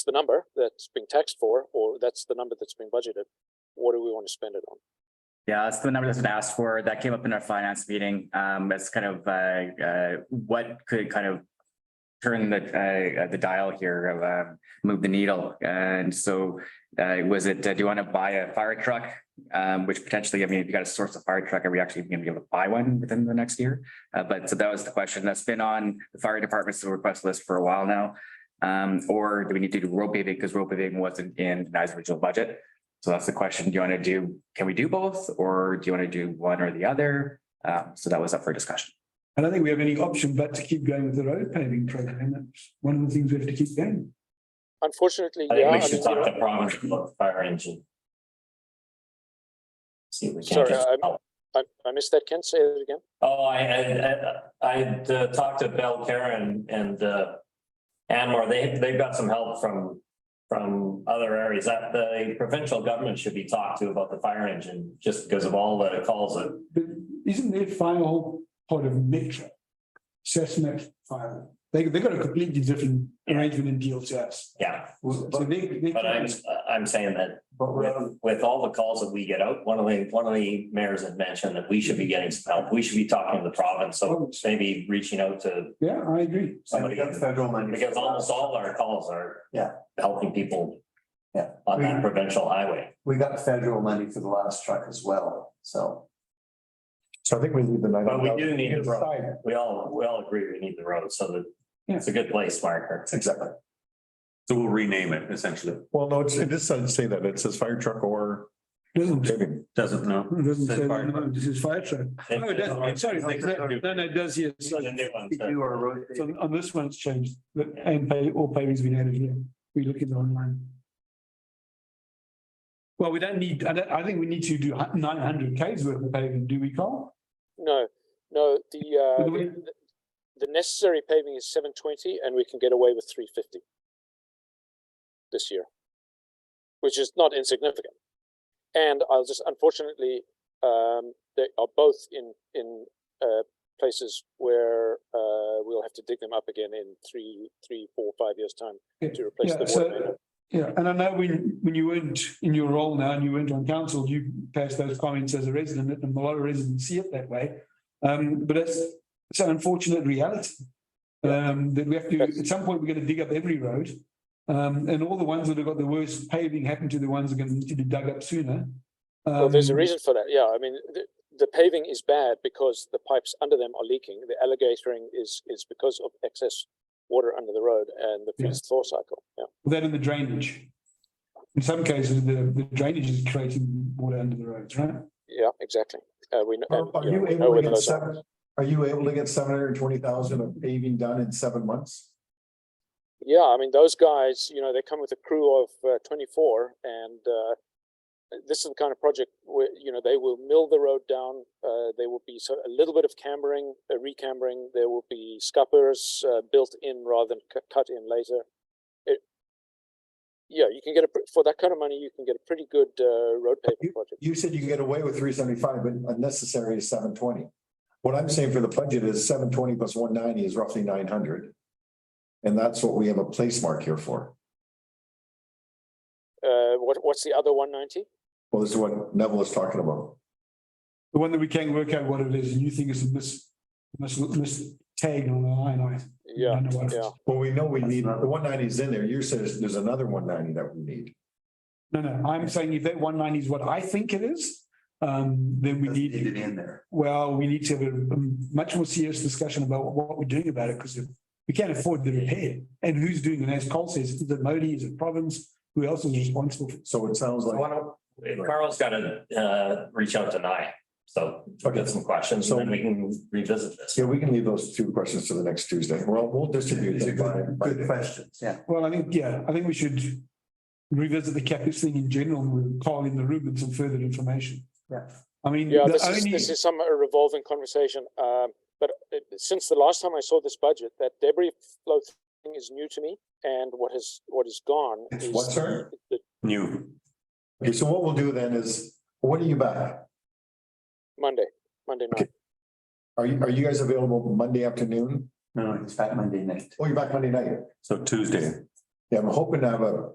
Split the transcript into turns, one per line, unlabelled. it's the number that's being taxed for, or that's the number that's being budgeted. What do we want to spend it on?
Yeah, that's the number that's been asked for. That came up in our finance meeting. Um, it's kind of, uh, uh, what could kind of turn the, uh, uh, the dial here, of, uh, move the needle. And so, uh, was it, uh, do you want to buy a fire truck? Um, which potentially, I mean, if you got to source a fire truck, are we actually going to be able to buy one within the next year? Uh, but so that was the question. That's been on the fire department's request list for a while now. Um, or do we need to do road paving? Because road paving wasn't in NICE original budget. So that's the question. Do you want to do, can we do both or do you want to do one or the other? Um, so that was up for discussion.
I don't think we have any option but to keep going with the road paving program. That's one of the things we have to keep going.
Unfortunately,
I
yeah,
think
I
we
mean,
should
you know,
talk to Providence about the fire engine. See if we can.
Sorry,
just-
I'm- I, I missed that. Ken, say it again.
Oh, I, I, I I'd, uh, talked to Bell Karen and, uh, Anwar, they, they've got some help from, from other areas that the provincial government should be talked to about the fire engine, just because of all that it calls it.
But isn't their fire hall part of Metro? Cessna Fire. They, they've got a completely different arrangement and deal to us.
Yeah,
So they, they.
but I'm, I'm saying that with, with all the calls that we get out, one of the, one of the mayors had mentioned that we should be getting some help. We should be talking to the province, so maybe reaching out to
Yeah, I agree.
somebody. Because almost all our calls are.
Yeah.
Helping people.
Yeah.
On that
We-
provincial highway.
We got federal money for the last truck as well, so.
So I think we leave the nine.
But we do need the road. We all, we all agree we need the road, so that it's a good place, marker.
Exactly.
So we'll rename it essentially.
Well, no, it's, it just doesn't say that. It says fire truck or
Doesn't,
paving.
Doesn't know.
doesn't say, that, no, this is fire truck. Oh, it does, sorry, no, no, it does, yes.
The new one, so-
Do our road.
So on- on this one, it's changed, but and pay, all paving's been added here. We look at the online. Well, we don't need, I don't, I think we need to do nine hundred Ks worth of paving, do we, Carl?
No, no, the, uh,
By the way-
the- the necessary paving is seven twenty and we can get away with three fifty this year, which is not insignificant. And I'll just, unfortunately, um, they are both in, in, uh, places where, uh, we'll have to dig them up again in three, three, four, five years' time
Yeah,
to replace
yeah,
the
so-
water main.
Yeah, and I know when, when you weren't in your role now and you weren't on council, you passed those comments as a resident and a lot of residents see it that way. Um, but it's, it's an unfortunate reality. Um, that we have to, at some point, we're gonna dig up every road. Um, and all the ones that have got the worst paving happen to the ones that are gonna need to be dug up sooner.
Well, there's a
Um,
reason for that. Yeah, I mean, the, the paving is bad because the pipes under them are leaking. The alligatoring is, is because of excess water under the road and the
Yeah.
freeze thaw cycle. Yeah.
That and the drainage. In some cases, the, the drainage is creating water under the roads, right?
Yeah, exactly. Uh, we know.
Are
and,
are
you know,
you
we know
able
where
to get
those are.
seven, are you able to get seven hundred and twenty thousand of paving done in seven months?
Yeah, I mean, those guys, you know, they come with a crew of uh, twenty-four and, uh, this is the kind of project where, you know, they will mill the road down, uh, there will be so a little bit of cambering, uh, recambering, there will be scuppers, uh, built in rather than cu- cut in later. It, yeah, you can get a, pre- for that kind of money, you can get a pretty good, uh, road paving project.
You said you can get away with three seventy-five, but unnecessary is seven twenty. What I'm saying for the budget is seven twenty plus one ninety is roughly nine hundred. And that's what we have a place mark here for.
Uh, what, what's the other one ninety?
Well, this is what Neville is talking about.
The one that we can work out what it is, and you think is a mis, mis, mis tag on the line, I.
Yeah,
don't know what it is.
yeah.
Well, we know we need, the one ninety is in there. You said there's another one ninety that we need.
No, no, I'm saying if that one ninety is what I think it is, um, then we
Need it
need,
in there.
well, we need to have a um, much more serious discussion about what we're doing about it, because we can't afford the repair. And who's doing it, as Cole says, is it Modi, is it province, who else is responsible for?
So it sounds like.
Carl's gotta, uh, reach out to Nye, so get some questions, and then we can revisit this.
Yeah, we can leave those two questions to the next Tuesday. Well, we'll distribute
These are
them
good,
by,
good
by,
questions, yeah.
Well, I think, yeah, I think we should revisit the CapEx thing in general, and we'll call in the room with some further information.
Yeah.
I mean,
Yeah,
the
this is,
only,
this is some uh, revolving conversation, um, but uh, since the last time I saw this budget, that debris flow thing is new to me. And what has, what is gone
It's
is.
what, sir?
the-
New.
okay, so what we'll do then is, when are you back?
Monday, Monday night.
Are you, are you guys available Monday afternoon?
No, no, it's back Monday night.
Oh, you're back Monday night.
So Tuesday,
Yeah, I'm hoping to have a